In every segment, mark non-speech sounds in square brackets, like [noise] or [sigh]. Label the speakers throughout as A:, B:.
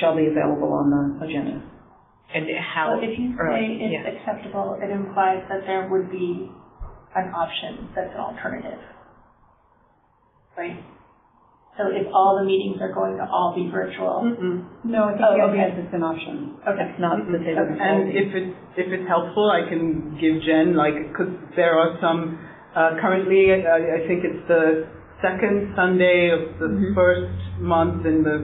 A: shall be available on the agenda.
B: And how
C: But if you
B: early,
C: say it's
B: yeah.
C: acceptable, it implies that there would be an option that's an alternative. Right? So if all the meetings are going to all be virtual,
D: Mm-mm.
A: No, I think
C: Oh,
A: the
C: okay.
A: idea is it's an option.
C: okay.
A: It's not that they would.
D: And if it's, if it's helpful, I can give Jen, like, because there are some, uh, currently, I, I think it's the second Sunday of the first month in the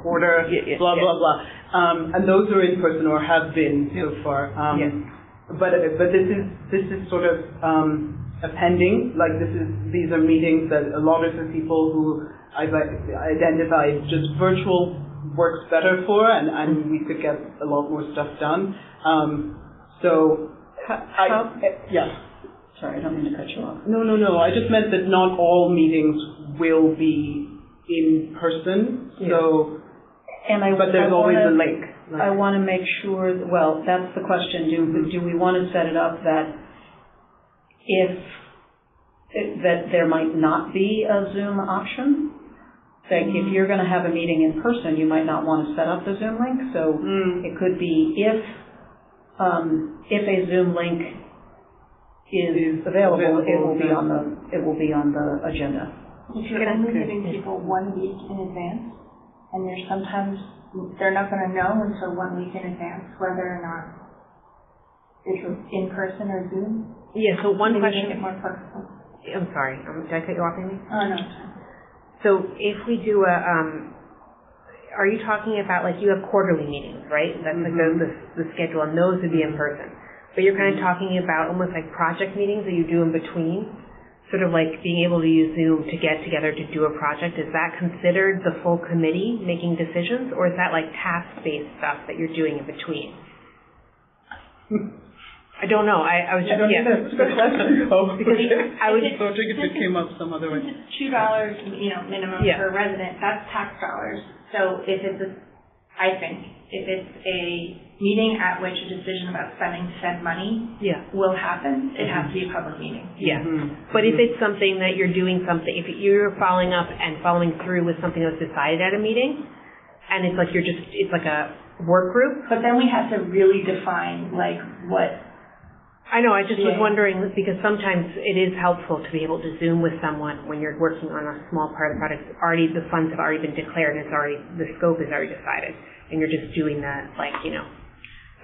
D: quarter,
B: Mm-hmm. Yeah, yeah,
D: blah,
B: yeah.
D: blah, blah. Um, and those are in person or have been so far. Um,
B: Yes.
D: But, but this is, this is sort of, um, appending, like this is, these are meetings that a lot of the people who I've i- identified just virtual works better for and, and we could get a lot more stuff done. Um, so,
A: how-
D: I, yeah.
A: Sorry, I don't mean to cut you off.
D: No, no, no. I just meant that not all meetings will be in person. So,
A: And I,
D: but
A: I
D: there's always a
A: wanna-
D: link.
A: I want to make sure, that- well, that's the question, do, do we want to set it up that if, that there might not be a Zoom option? Like, if you're going to have a meeting in person, you might not want to set up the Zoom link, so
D: Mm.
A: it could be if, um, if a Zoom link is
D: Is
A: available, it will be
D: available.
A: on the, it will be on the agenda.
B: Mm-hmm.
C: If you're only giving people one week in advance, and there's sometimes, they're not gonna know until one week in advance whether or not it's in person or Zoom.
B: Yeah, so one
C: Maybe
B: question,
C: Make it more personal.
B: I'm sorry, um, did I cut you off, Amy?
C: Oh, no, it's fine.
B: So if we do a, um, are you talking about, like, you have quarterly meetings, right? That's like the, the, the schedule, and those would be in person. But you're kind of talking about almost like project meetings that you do in between, sort of like being able to use Zoom to get together to do a project. Is that considered the full committee making decisions, or is that like task-based stuff that you're doing in between? I don't know, I, I was
D: I
B: just,
D: don't
B: yeah.
D: think that's a good question. Oh,
B: Because
D: [laughs] okay.
B: I would-
D: So I think it came up some other way.
C: Since it's two dollars, you know, minimum
B: Yeah.
C: per resident, that's tax dollars. So if it's a, I think, if it's a meeting at which a decision about spending said money
B: Yeah.
C: will happen, it has to be a public meeting.
B: Yeah.
D: Mhm.
B: Hmm. Mm-hmm. But if it's something that you're doing something, if you're following up and following through with something that was decided at a meeting, and it's like you're just, it's like a work group.
C: But then we have to really define like what,
B: I know, I just was
C: Yeah.
B: wondering, because sometimes it is helpful to be able to Zoom with someone when you're working on a small part of the product, It's already, the funds have already been declared, and it's already, the scope is already decided, and you're just doing that, like, you know.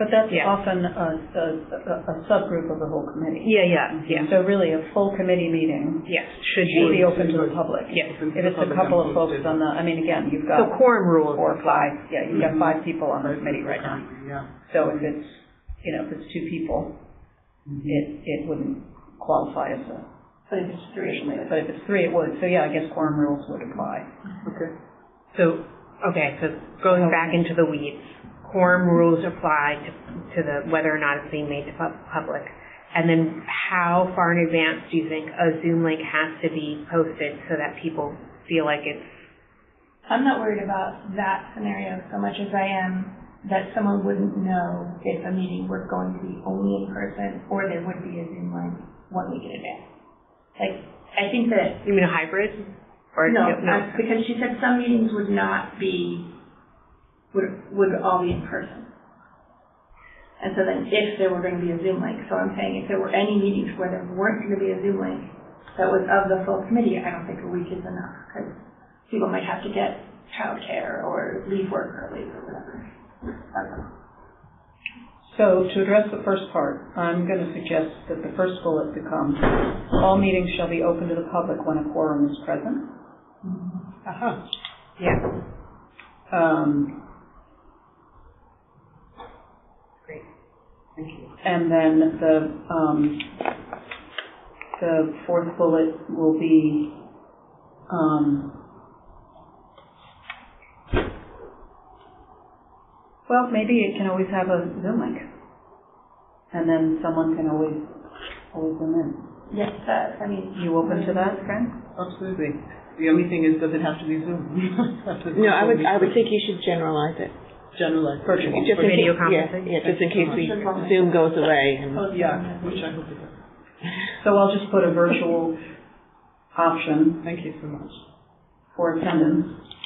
A: But that's
B: Yeah.
A: often a, a, a- a subgroup of the whole committee.
B: Yeah, yeah, yeah,
A: So really, a full committee meeting
B: yes, should
A: should be
B: be.
A: open to the public.
B: Yes.
D: Open to
A: If
D: the
A: it's a
D: public
A: couple
D: and
A: of folks
D: posted.
A: on the, I mean, again, you've got
B: So quorum rules.
A: four or five, yeah, you've got
D: Mhm.
A: five people on the committee right now.
D: Yeah.
A: So if it's, you know, if it's two people, it, it wouldn't qualify as a,
C: Mm-hmm. but if it's three, but
A: but if it's three, it would. So yeah, I guess quorum rules would apply.
D: Okay.
B: So, okay, so going back into the weeds, quorum rules apply to, to the, whether or not it's being made to pub- public. And then how far in advance do you think a Zoom link has to be posted so that people feel like it's,
C: I'm not worried about that scenario so much as I am that someone wouldn't know if a meeting was going to be only in person or there would be a Zoom link one week in advance. Like, I think that
B: you mean a hybrid? Or
C: No, uh, because she said some meetings would not be, would, would all be in person. And so then if there were going to be a Zoom link, so I'm saying if there were any meetings where there weren't going to be a Zoom link that was of the full committee, I don't think a week is enough because people might have to get childcare or leave work early or whatever. That's all.
A: So to address the first part, I'm going to suggest that the first bullet become, all meetings shall be open to the public when a quorum is present.
D: Aha.
B: Yeah,
A: Um,
B: Great.
A: Thank you. And then the, um, the fourth bullet will be, um, well, maybe it can always have a Zoom link. And then someone can always, always Zoom in.
C: Yes, that, I mean.
A: You open to that, Fran?
D: Absolutely. The only thing is, does it have to be Zoom? [laughs]
E: No, I would, I would think you should generalize it.
D: Generalize.
A: Virtual.
E: Just in
B: video
E: case-
B: conferencing?
E: Yeah, yeah, just in case we,
C: Just as long as-
E: Zoom goes away and.
C: Post-
D: Yeah, which I hope it does.
A: So I'll just put a virtual option
D: Thank you so much.
A: for attendance